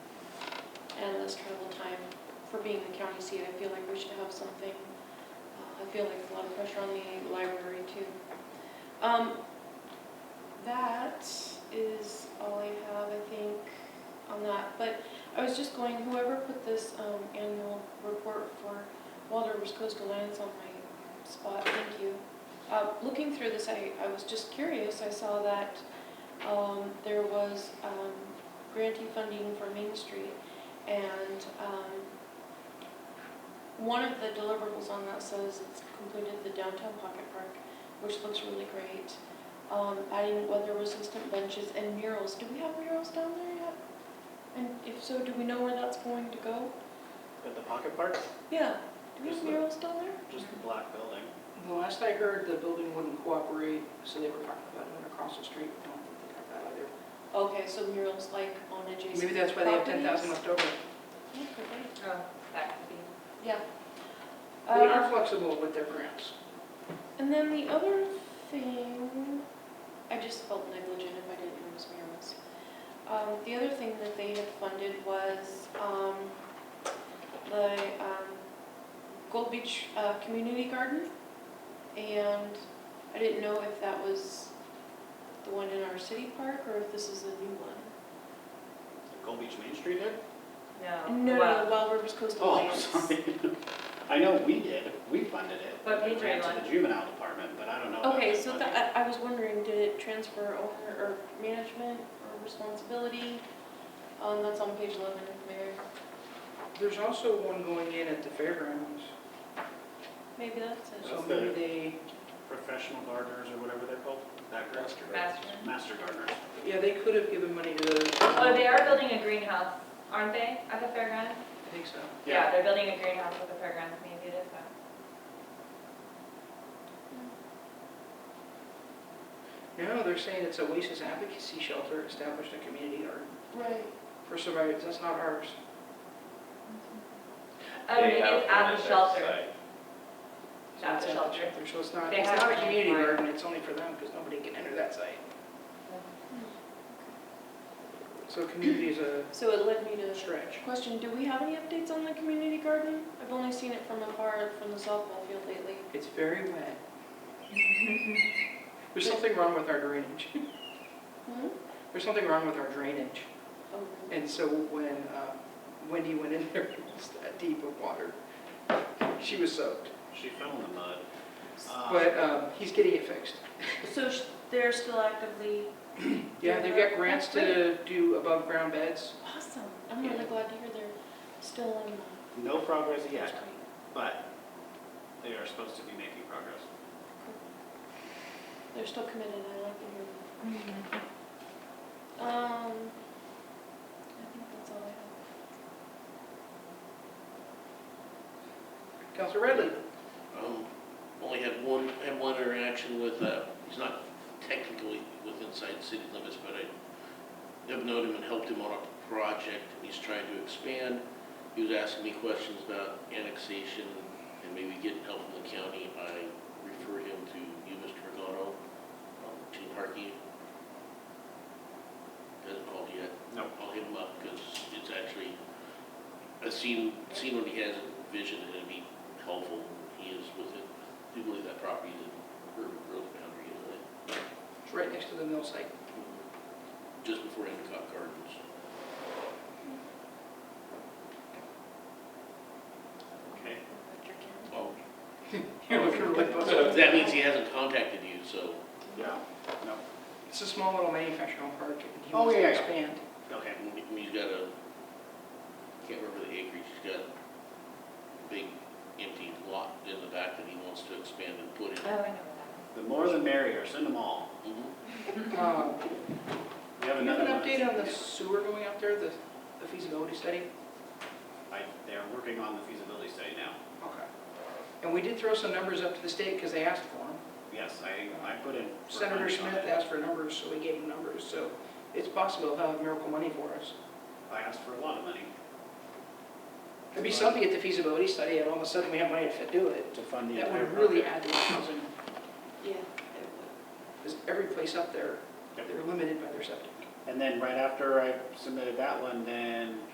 and less travel time. For being a county seat, I feel like we should have something. Uh, I feel like a lot of pressure on the library too. Um, That is all I have, I think, on that. But I was just going, whoever put this um, annual report for Walter West Coastal Lands on my spot, thank you. Uh, Looking through this, I, I was just curious, I saw that um, there was um, grantee funding for Main Street, and um, one of the deliverables on that says it's completed the downtown pocket park, which looks really great. Um, Adding weather-resistant benches and murals, do we have murals down there yet? And if so, do we know where that's going to go? At the pocket park, Yeah, do we have Just the- murals down there? just the black building. The last I heard, the building wouldn't cooperate, so they were talking about it across the street. I don't think they got that either. Okay, so murals like on adjacent Maybe that's why they have ten thousand properties? left over. Yeah, could be. Oh, that could be. Yeah. They Uh, are flexible with their grants. And then the other thing, I just felt negligent if I didn't notice murals. Um, the other thing that they had funded was, um, the, um, Gold Beach, uh, Community Garden. And I didn't know if that was the one in our city park or if this is a new one. Gold Beach Main Street there? No, No, no, well, Wild Rivers Coastal Oh, Lands. sorry. I know we did, we funded it. But we It ran ran To the juvenile department, but I don't know. about Okay, that so funding. that, I, I was wondering, did it transfer owner or management or responsibility? Um, that's on page eleven, Mayor. There's also one going in at the fairgrounds, Maybe that's it. so That's maybe the- they, Professional gardeners or whatever they're called, that group? master. Master gardeners. yeah, they could have given money to those. Oh, they are building a greenhouse, aren't they, at the fairgrounds? I think so. Yeah. They're building a greenhouse at the fairgrounds, maybe it is that. No, they're saying it's Oasis Advocacy Shelter established a community garden Right. for survivors. That's not ours. Oh, maybe it's at the shelter. So At it's the shelter. So it's not, They it's have not a one. community garden, it's only for them because nobody can enter that site. So community is a So it led me to stretch. question, do we have any updates on the community garden? I've only seen it from afar from the softball field lately. It's very wet. There's something wrong with our drainage. Hmm? There's something wrong with our drainage. Oh, really? And so when uh, Wendy went in there, it was that deep of water. She was soaked. She fell in the mud. Uh, But um, he's getting it fixed. So sh- they're still actively, Yeah, they've got grants to do above-ground beds. awesome. I'm really Yeah. glad to hear they're still on. that. No progress That's yet, great. but they are supposed to be making progress. They're still committed, I like to hear that. Mm-hmm. Um, I think that's all I have. Counselor Redley? Um, Only had one, had one interaction with, uh, he's not technically with inside city limits, but I have known him and helped him on a project he's trying to expand. He was asking me questions about annexation and maybe getting help from the county. I referred him to you, Mr. Regano, um, Gene Harkey. Hasn't called yet. No. I'll hit him up because it's actually, I've seen, seen what he has in vision and it'd be helpful. He is with it. I do believe that property is in urban growth boundary, isn't it? It's right next to the mill site. Just before Endicott Gardens. Okay. Dr. Kim. Oh, You're looking really puzzled. that means he hasn't contacted you, so Yeah, no, It's a small little manufacturing park. and he Oh, wants to yeah, yeah. expand. okay. he- he's got a, can't remember the acreage, he's got a big empty lot in the back that he wants to expand and put Oh, I know in. where that The more the merrier, send them all. Mhm. Um, We have Do you have another an one. update on the sewer going out there, the the feasibility study? I, they're working on the feasibility study now. Okay. And we did throw some numbers up to the state because they asked for them. Yes, I, I put in. for Senator money on Smith it. asked for numbers, so we gave him numbers, so it's possible he'll have miracle money for us. I asked for a lot of money It'd be something at the feasibility study, and all of a sudden we have money to do it. to fund the That entire would really project. add to the housing, Yeah, it would. because every place up there, Yep. they're limited by their septic. And then right after I submitted that one, then